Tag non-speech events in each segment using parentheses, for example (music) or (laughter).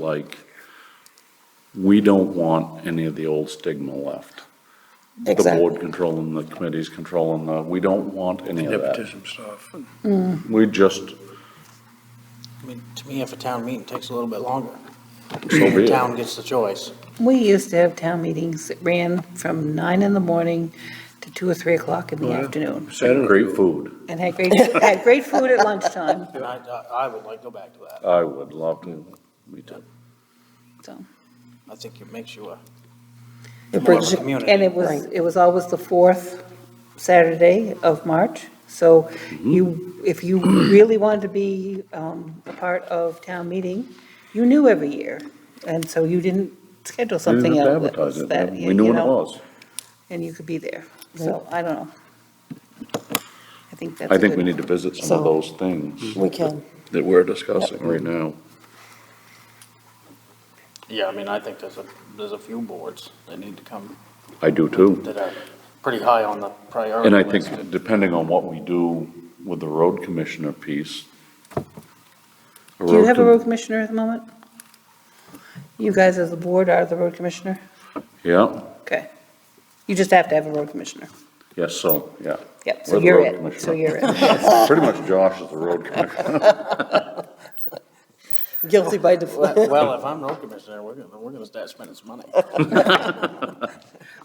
like, we don't want any of the old stigma left. The Exactly. board controlling, the committees controlling, the, we don't want any of that. nepotism stuff. We just, so I mean, to me, if a town meeting takes a little bit longer, Oh, be the it. town gets the choice. We used to have town meetings that ran from nine in the morning to two or three o'clock in the afternoon, Saturday. Great food. and had great, had great food (laughs) at lunchtime, And I, I I would like to go back to that. I would love to, me too. so. I think it makes you a It more of brings a you- community. And it was, it was always the fourth Saturday of March, so Mm-hmm. you, if you really wanted to be um, a part of town meeting, you knew every year, and so you didn't schedule We didn't something have to else. that advertise it. that, We you knew what it know, was. And you could be there, so I don't know. I think that's I think we good. need to visit some of So- those things We can. that we're discussing right now. Yeah, I mean, I think there's a, there's a few boards that need to come, I do too. that are pretty high on the priority And I list. think depending on what we do with the road commissioner piece. Do you have a road commissioner at the moment? You guys as the board are the road commissioner? Yeah, Okay. You just have to have a road commissioner. yes, so, yeah. Yep, We're so the you're road it, so commissioner. you're (laughs) it. Pretty much Josh is the (laughs) road commissioner. Guilty by default. Well, well, if I'm road commissioner, we're gonna, we're gonna start spending some money.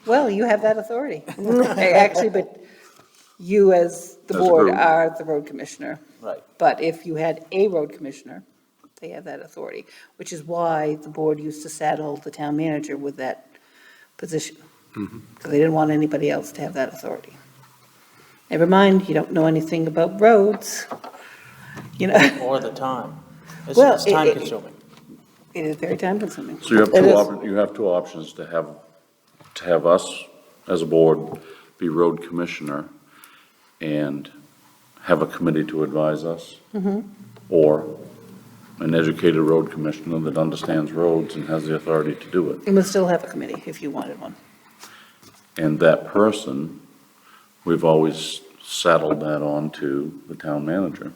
Well, you have that authority. (laughs) Actually, but you as the As a board group. are the road commissioner. Right. But if you had a road commissioner, they have that authority, which is why the board used to saddle the town manager with that position. Mm-hmm. Because they didn't want anybody else to have that authority. Never mind, you don't know anything about roads, you know, (laughs) Or the time. It's, Well, it's it- time it- consuming. it is very time consuming. So you have It two, is. op- you have two options to have, to have us as a board be road commissioner and have a committee to advise us. Mm-hmm. Or an educated road commissioner that understands roads and has the authority to do it. You must still have a committee if you wanted one. And that person, we've always saddled that on to the town manager.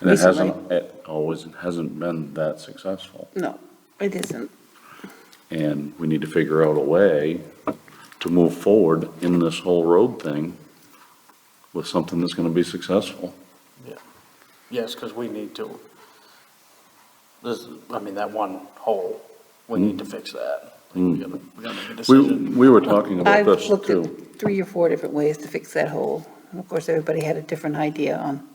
And it hasn't, it always hasn't been that successful. No, it isn't. And we need to figure out a way to move forward in this whole road thing with something that's gonna be successful. Yes, because we need to, this, I mean, that one hole, we need to fix that. We gotta, we gotta make a Mm. We, decision. we were talking about I've this looked too. at three or four different ways to fix that hole, and of course, everybody had a different idea on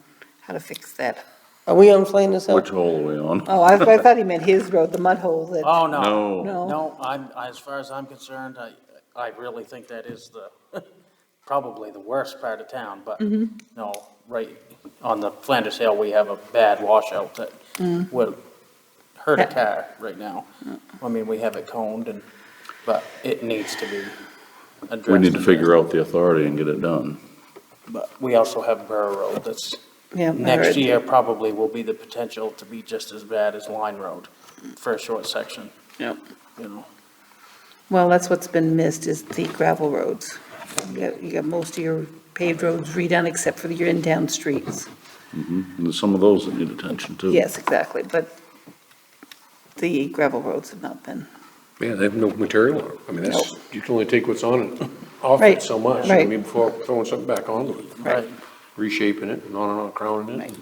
how to fix that. Are we on playing this Which out? hole are we on? Oh, I I thought he meant his road, the mud hole Ah, that, Oh, no. No, No. No, I'm, as far as I'm concerned, I, I really think that is the, (laughs) probably the worst part of town, but Mm-hmm. no, right on the Flanders Hill, we have a bad washout that Mm. would hurt a car right now. I mean, we have it coned and, but it needs to be addressed. we need to figure out the authority and get it done. But we also have Burr Road that's yeah. I heard. Next year probably will be the potential to be just as bad as Line Road for a short section. Yep. You know, Well, that's what's been missed, is the gravel roads. You got, you got most of your paved roads redone except for your in-town streets. And there's some of those that need attention too. Yes, exactly, but the gravel roads have not been. Yeah, they have no material on it. I mean, that's, you can only take what's on it, (laughs) off Right, it so much. I right. mean, before throwing something back onto it, Right. right, reshaping it and on and on, crowning it. Right.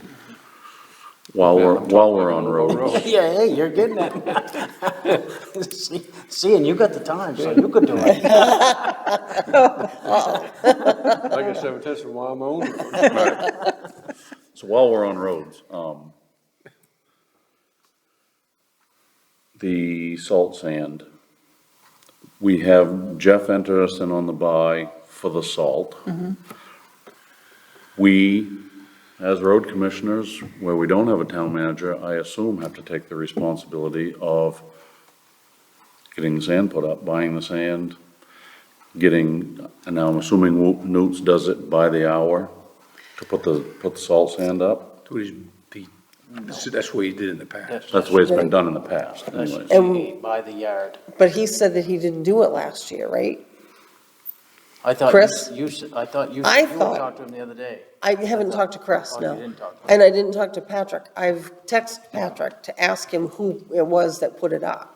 While Yeah, I'm we're, talking while we're like on a little road. (laughs) road. Yeah, hey, you're getting it. (laughs) See- Seeing you got the time, so you could do it. Like I said, I'm testing while I'm on it. So while we're on roads, um, the salt sand, we have Jeff enter us in on the buy for the salt. We, as road commissioners, where we don't have a town manager, I assume have to take the responsibility of getting the sand put up, buying the sand, getting, and now I'm assuming Newt's does it by the hour to put the, put the salt sand up. That's what he's- he- that's- That's what he did in the past. That's the way it's been done in the past anyways. And- By the yard. But he said that he didn't do it last year, right? I thought you- Chris? you, s- I thought you, I you thought- talked to him the other day. I haven't talked to Chris, Oh, you no. didn't talk to him. And I didn't talk to Patrick. I've texted Patrick to ask him who it was that put it up.